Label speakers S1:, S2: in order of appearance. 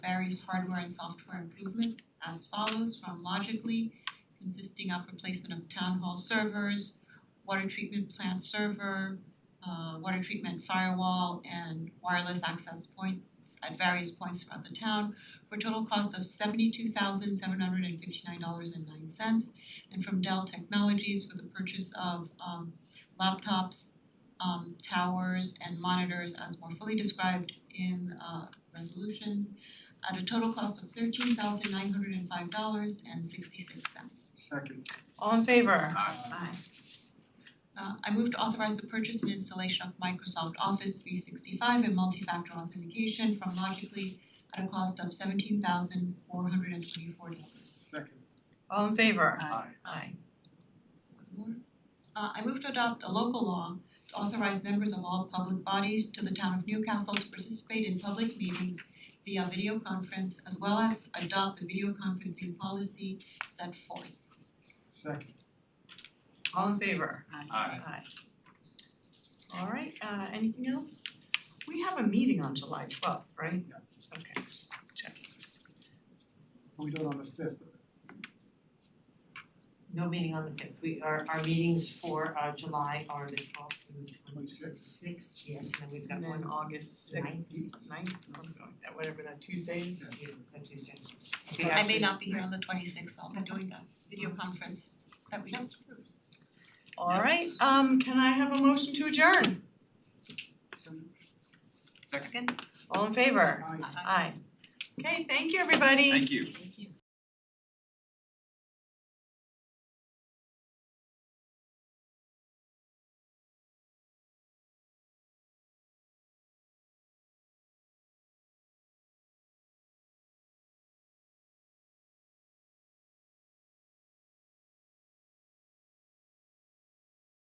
S1: various hardware and software improvements as follows from Logically, consisting of replacement of town hall servers, water treatment plant server, uh water treatment firewall and wireless access points at various points throughout the town for a total cost of seventy-two thousand seven hundred and fifty-nine dollars and nine cents. And from Dell Technologies for the purchase of um laptops, um towers and monitors as more fully described in uh resolutions at a total cost of thirteen thousand nine hundred and five dollars and sixty-six cents.
S2: Second,
S3: All in favor?
S4: Aye.
S1: Uh I move to authorize the purchase and installation of Microsoft Office three sixty-five and multi-factor authentication from Logically at a cost of seventeen thousand four hundred and twenty-four dollars.
S2: second,
S3: All in favor?
S4: Aye.
S3: Aye.
S1: Uh I move to adopt a local law to authorize members of all public bodies to the town of Newcastle to participate in public meetings via video conference as well as adopt the video conferencing policy set forth.
S2: second,
S3: All in favor?
S4: Aye.
S3: Aye. Alright, uh anything else? We have a meeting on July twelfth, right?
S2: Yeah.
S3: Okay, just checking.
S2: but we do it on the fifth,
S5: No meeting on the fifth, we, our our meetings for uh July are the twelfth and the twenty
S2: twenty-sixth.
S5: sixth, yes, and then we've got
S3: And then
S5: one
S3: August sixth, ninth, something like that, whatever that Tuesday is.
S5: on you, that Tuesday.
S3: Okay,
S1: I
S3: after-
S1: may not be here on the twenty-sixth, so I'll be doing that video conference that we just approved.
S3: Alright, um can I have a motion to adjourn?
S1: Second?
S3: All in favor?
S2: Aye.
S3: Aye. Okay, thank you, everybody.
S6: Thank you.
S4: Aye.